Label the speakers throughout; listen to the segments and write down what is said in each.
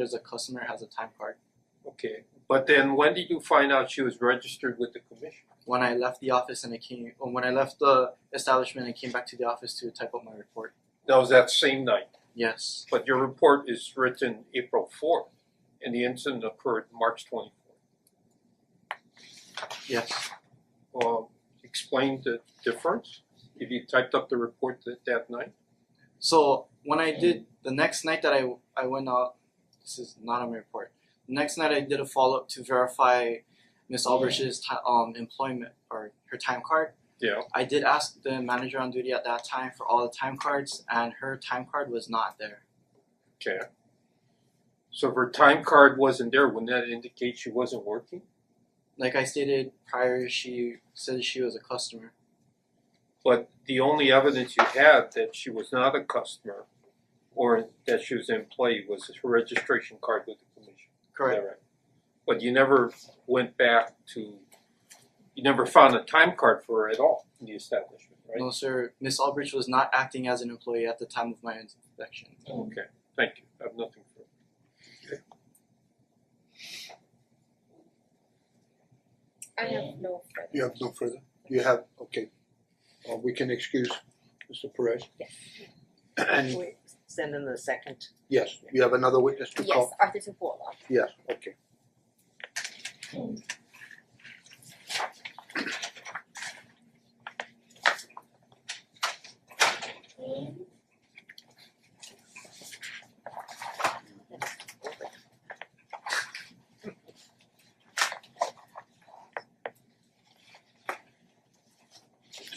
Speaker 1: There's a customer has a time card.
Speaker 2: Okay, but then when did you find out she was registered with the commission?
Speaker 1: When I left the office and I came, or when I left the establishment and came back to the office to type up my report.
Speaker 2: That was that same night,
Speaker 1: Yes,
Speaker 2: but your report is written April fourth, and the incident occurred March twenty fourth.
Speaker 1: yes.
Speaker 2: Um, explain the difference, if you typed up the report that that night?
Speaker 1: So when I did the next night that I I went out, this is not on my report. The next night I did a follow up to verify Miss Albrich's ti- um employment or her time card.
Speaker 2: Yeah,
Speaker 1: I did ask the manager on duty at that time for all the time cards, and her time card was not there.
Speaker 2: okay. So if her time card wasn't there, wouldn't that indicate she wasn't working?
Speaker 1: Like I stated prior, she said she was a customer.
Speaker 2: But the only evidence you had that she was not a customer or that she was an employee was her registration card with the commission.
Speaker 1: Correct.
Speaker 2: Is that right? But you never went back to, you never found a time card for her at all in the establishment, right?
Speaker 1: No, sir. Miss Albridge was not acting as an employee at the time of my inspection.
Speaker 2: Okay, thank you, I have nothing further.
Speaker 3: I have no further.
Speaker 4: You have no further? You have, okay. Uh we can excuse Mr. Perez?
Speaker 3: Yes.
Speaker 4: And
Speaker 5: We send in the second.
Speaker 4: yes, you have another witness to
Speaker 3: Yes,
Speaker 4: call?
Speaker 3: Arthur Tapola.
Speaker 4: Yes. okay.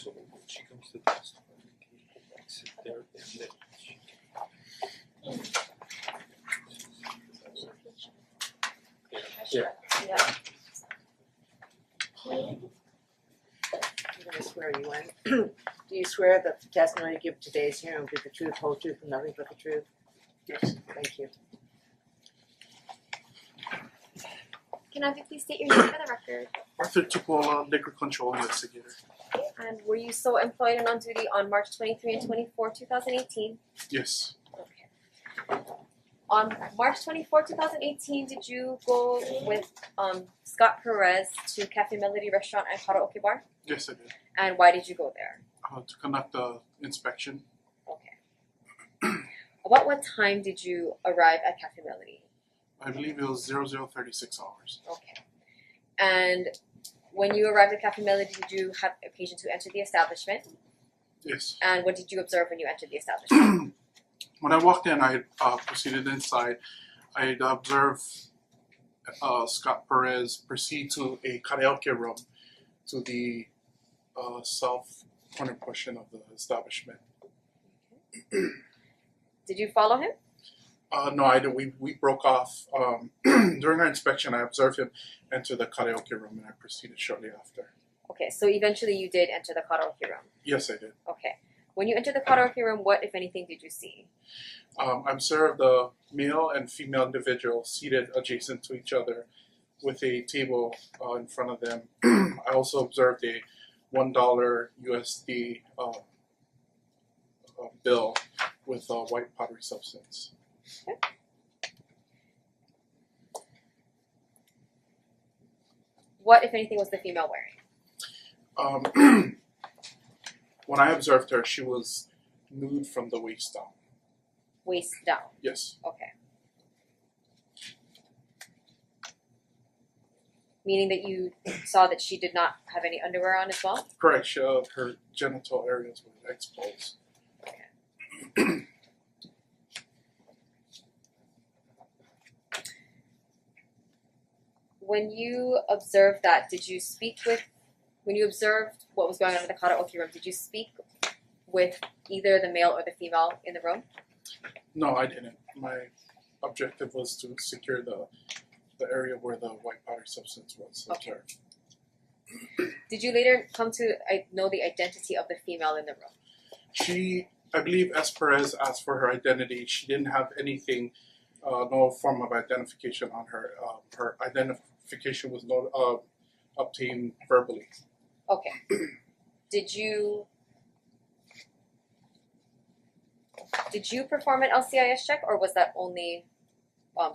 Speaker 2: So when she comes to testify, people like sit there and then she Yeah.
Speaker 3: Yeah.
Speaker 5: I'm gonna swear you in. Do you swear that the testimony you give today's hearing will be the truth, whole truth, and nothing but the truth? Yes. Thank you.
Speaker 6: Can either please state your name for the record?
Speaker 7: Arthur Tupola, uh, liquor control investigator.
Speaker 6: And were you so employed and on duty on March twenty-three and twenty-four, two thousand eighteen?
Speaker 7: Yes,
Speaker 6: Okay. On March twenty-four, two thousand eighteen, did you go with um Scott Perez to Cafe Melody Restaurant and Karaoke Bar?
Speaker 7: yes, I did.
Speaker 6: And why did you go there?
Speaker 7: Uh, to conduct the inspection
Speaker 6: Okay. About what time did you arrive at Cafe Melody?
Speaker 7: I believe it was zero zero thirty six hours.
Speaker 6: Okay. And when you arrived at Cafe Melody, did you have occasion to enter the establishment?
Speaker 7: Yes.
Speaker 6: And what did you observe when you entered the establishment?
Speaker 7: When I walked in, I uh, proceeded inside. I observed uh, Scott Perez proceed to a karaoke room to the uh, south corner portion of the establishment.
Speaker 6: Did you follow him?
Speaker 7: Uh, no, I did. We, we broke off um, during our inspection. I observed him enter the karaoke room, and I proceeded shortly after.
Speaker 6: Okay, so eventually you did enter the karaoke room.
Speaker 7: Yes, I did.
Speaker 6: Okay. When you entered the karaoke room, what, if anything, did you see?
Speaker 7: Um, I'm served a male and female individual seated adjacent to each other with a table uh, in front of them. I also observed a $1 USD uh, uh, bill with a white pottery substance.
Speaker 6: What, if anything, was the female wearing?
Speaker 7: Um, when I observed her, she was nude from the waist down.
Speaker 6: Waist down.
Speaker 7: Yes,
Speaker 6: Okay. Meaning that you saw that she did not have any underwear on as well?
Speaker 7: correct. She, uh, her genital areas were exposed.
Speaker 6: When you observed that, did you speak with, when you observed what was going on in the karaoke room, did you speak with either the male or the female in the room?
Speaker 7: No, I didn't. My objective was to secure the the area where the white powder substance was
Speaker 6: Okay.
Speaker 7: observed.
Speaker 6: Did you later come to I know the identity of the female in the room?
Speaker 7: She, I believe, S. Perez asked for her identity. She didn't have anything, uh, no form of identification on her. Um, her identification was not uh, obtained verbally.
Speaker 6: Okay. Did you did you perform an LCIS check or was that only um